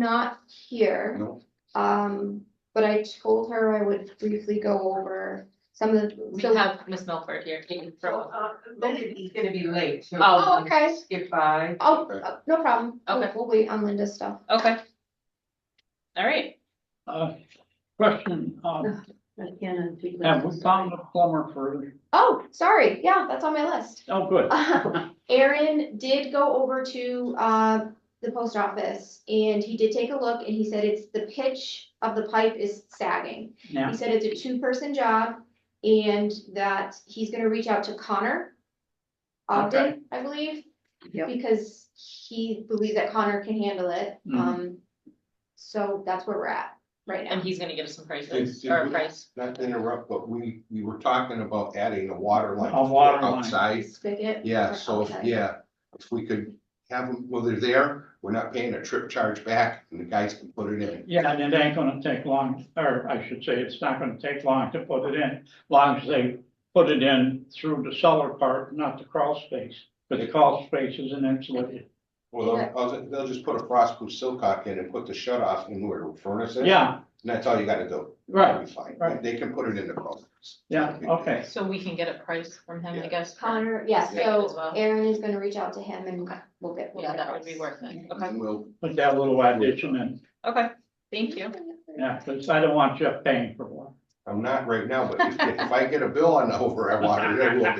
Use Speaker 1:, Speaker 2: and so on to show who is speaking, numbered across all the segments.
Speaker 1: not here.
Speaker 2: No.
Speaker 1: Um, but I told her I would briefly go over some of the,
Speaker 3: We
Speaker 1: so,
Speaker 3: have Miss Milford here, she can throw.
Speaker 4: Linda's uh, gonna be late, so.
Speaker 3: Oh,
Speaker 1: oh, okay,
Speaker 4: Skip by.
Speaker 1: oh, uh, no problem. We'll-
Speaker 3: Okay.
Speaker 1: We'll wait on Linda's stuff.
Speaker 3: Okay. All right,
Speaker 5: Uh, question, um, have we found a plumber for,
Speaker 1: Oh, sorry, yeah, that's on my list.
Speaker 5: oh, good.
Speaker 1: Aaron did go over to uh the post office and he did take a look and he said it's the pitch of the pipe is sagging.
Speaker 5: Yeah.
Speaker 1: He said it's a two-person job and that he's gonna reach out to Connor Ogden, I believe.
Speaker 4: Yep.
Speaker 1: Because he believes that Connor can handle it.
Speaker 3: Mm-hmm.
Speaker 5: Mhm.
Speaker 1: Um, so that's where we're at right
Speaker 3: and
Speaker 1: now.
Speaker 3: he's gonna give us some
Speaker 2: Did-
Speaker 3: prices,
Speaker 2: did
Speaker 3: or a
Speaker 2: we-
Speaker 3: price,
Speaker 2: Not to interrupt, but we, we were talking about adding a water line.
Speaker 5: A water line.
Speaker 2: Outside,
Speaker 1: Spigot.
Speaker 2: yeah, so, if-
Speaker 1: Okay.
Speaker 2: yeah, if we could have them, well, they're there, we're not paying a trip charge back, and the guys can put it in.
Speaker 5: Yeah, and it ain't gonna take long, or I should say, it's not gonna take long to put it in, long as they put it in through the cellar part, not the crawl space. But the crawl space is an insulated,
Speaker 2: Well, they'll- they'll, they'll just put a frostproof silcock in and put the shut off in where the furnace is.
Speaker 5: yeah,
Speaker 2: And that's all you gotta do.
Speaker 5: right,
Speaker 2: It'll be fine.
Speaker 5: right.
Speaker 2: They can put it in the closets.
Speaker 5: yeah, okay.
Speaker 3: so we can get a price from him, I
Speaker 2: Yeah.
Speaker 3: guess. for-
Speaker 1: Connor, yeah,
Speaker 3: Yeah, as
Speaker 1: so
Speaker 3: well.
Speaker 1: Aaron is gonna reach out to him and we'll get. we'll
Speaker 3: Yeah,
Speaker 1: get
Speaker 3: that would be
Speaker 1: us.
Speaker 3: worth it, okay,
Speaker 2: And we'll,
Speaker 5: Put that little addition in,
Speaker 3: okay, thank you.
Speaker 5: yeah, because I don't want you paying for one.
Speaker 2: I'm not right now, but if, if I get a bill on the over I water, there will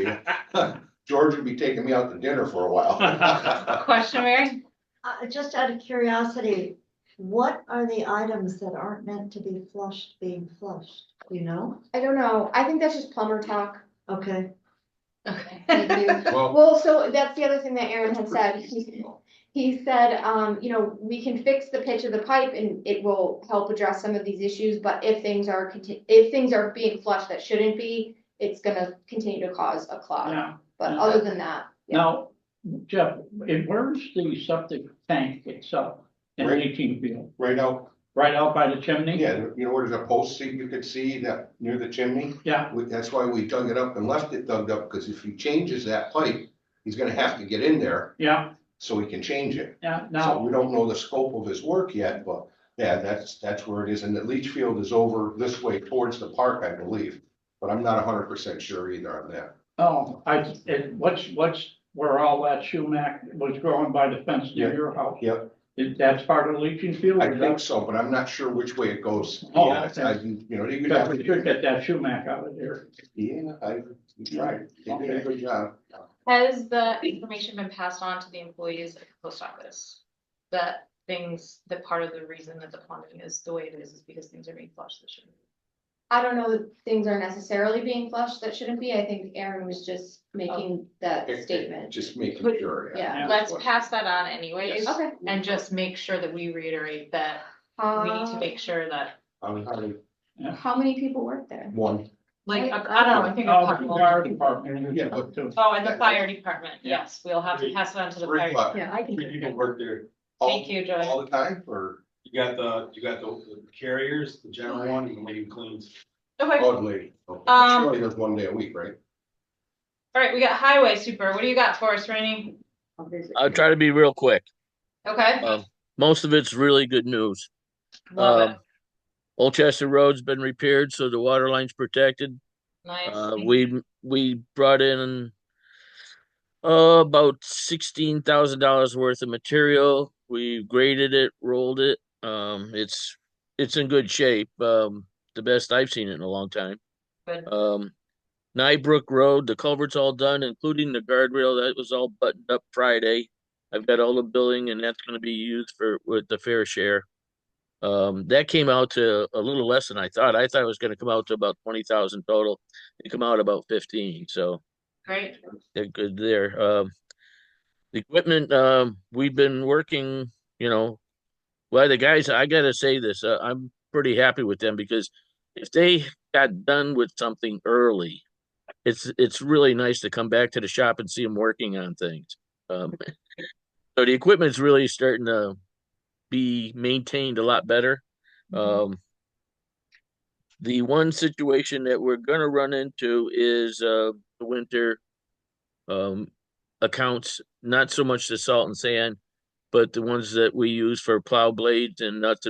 Speaker 2: be. George would be taking me out to dinner for a while.
Speaker 3: Question, Mary?
Speaker 6: Uh, just out of curiosity, what are the items that aren't meant to be flushed being flushed, you know?
Speaker 1: I don't know. I think that's just plumber talk.
Speaker 6: Okay,
Speaker 1: Thank
Speaker 3: Okay.
Speaker 1: you.
Speaker 2: Well,
Speaker 1: Well, so that's the other thing that Aaron had said. He, he said, um, you know, we can fix the pitch of the pipe and it will help address some of these issues, but if things are conti- if things are being flushed that shouldn't be, it's gonna continue to cause a clog.
Speaker 5: Yeah,
Speaker 1: But other than that, yeah.
Speaker 5: now, Jeff, it- where's the septic tank itself in
Speaker 2: Right.
Speaker 5: leaching field?
Speaker 2: right out,
Speaker 5: Right out by the chimney?
Speaker 2: yeah, you know, where there's a post seat you could see that near the chimney?
Speaker 5: Yeah.
Speaker 2: We- That's why we dug it up and left it dug up, because if he changes that pipe, he's gonna have to get in there
Speaker 5: Yeah,
Speaker 2: so he can change it.
Speaker 5: yeah,
Speaker 2: So
Speaker 5: now,
Speaker 2: we don't know the scope of his work yet, but yeah, that's, that's where it is. And the leach field is over this way towards the park, I believe. But I'm not hundred percent sure either on that.
Speaker 5: oh, I, it, what's, what's, where all that sumac was growing by the fence near
Speaker 2: Yeah,
Speaker 5: your house?
Speaker 2: yep.
Speaker 5: Is- That's part of leaching field?
Speaker 2: I
Speaker 5: is
Speaker 2: think
Speaker 5: that-
Speaker 2: so, but I'm not sure which way it goes. to be
Speaker 5: Oh,
Speaker 2: honest.
Speaker 5: okay.
Speaker 2: I, you know, you
Speaker 5: Because we
Speaker 2: have,
Speaker 5: should get that sumac out of there.
Speaker 2: yeah, I, you tried. They did a good job.
Speaker 3: Has the information been passed on to the employees at the post office? That things, that part of the reason that the quantity is the way it is, is because things are being flushed this year.
Speaker 1: I don't know that things are necessarily being flushed that shouldn't be. I think Aaron was just making that
Speaker 2: It- it
Speaker 1: statement.
Speaker 2: Just making
Speaker 3: But-
Speaker 2: sure.
Speaker 1: Yeah.
Speaker 3: Let's pass that on anyways,
Speaker 1: Okay.
Speaker 3: and just make sure that we reiterate that we need to
Speaker 1: Uh,
Speaker 3: make sure that,
Speaker 2: I'm having
Speaker 1: How many people work there?
Speaker 2: one,
Speaker 3: like,
Speaker 1: I-
Speaker 3: I I don't know, I think. a
Speaker 5: Oh, the
Speaker 3: couple-
Speaker 5: fire department.
Speaker 2: Yeah, but-
Speaker 5: but. uh,
Speaker 3: Oh, and the fire department,
Speaker 5: Yeah.
Speaker 3: yes, we'll have to pass it on to the
Speaker 7: Three
Speaker 3: fire.
Speaker 7: bucks.
Speaker 6: yeah, I can.
Speaker 7: You can work there.
Speaker 3: Thank
Speaker 2: all,
Speaker 3: you, Joy.
Speaker 2: all the time or
Speaker 7: You got the, you got the the carriers, the general one, and the lady who cleans.
Speaker 3: Okay, all
Speaker 2: odd lady.
Speaker 3: Um,
Speaker 2: She only does one day a week, right?
Speaker 3: right, we got highway super, what do you got for us, Rainey?
Speaker 8: I'll try to be real quick.
Speaker 3: Okay,
Speaker 8: Uh, Most of it's really good news.
Speaker 3: love it,
Speaker 8: Um, Old Chester Road's been repaired, so the water line's protected.
Speaker 3: nice.
Speaker 8: Uh, we, we brought in uh, about sixteen thousand dollars worth of material. We graded it, rolled it. Um, it's, it's in good shape. Um, the best I've seen it in a long time.
Speaker 3: Good.
Speaker 8: Um, Nybrook Road, the culvert's all done, including the guardrail. That was all buttoned up Friday. I've got all the billing and that's gonna be used for, with the fair share. Um, that came out to a little less than I thought. I thought it was gonna come out to about twenty thousand total. It come out about fifteen, so
Speaker 3: Great,
Speaker 8: they're good there. Um, the equipment, um, we've been working, you know, well, the guys, I gotta say this, uh, I'm pretty happy with them because if they got done with something early, it's, it's really nice to come back to the shop and see them working on things. Um, so the equipment's really starting to be maintained a lot better. Um, the one situation that we're gonna run into is, uh, the winter um accounts, not so much the salt and sand, but the ones that we use for plow blades and nuts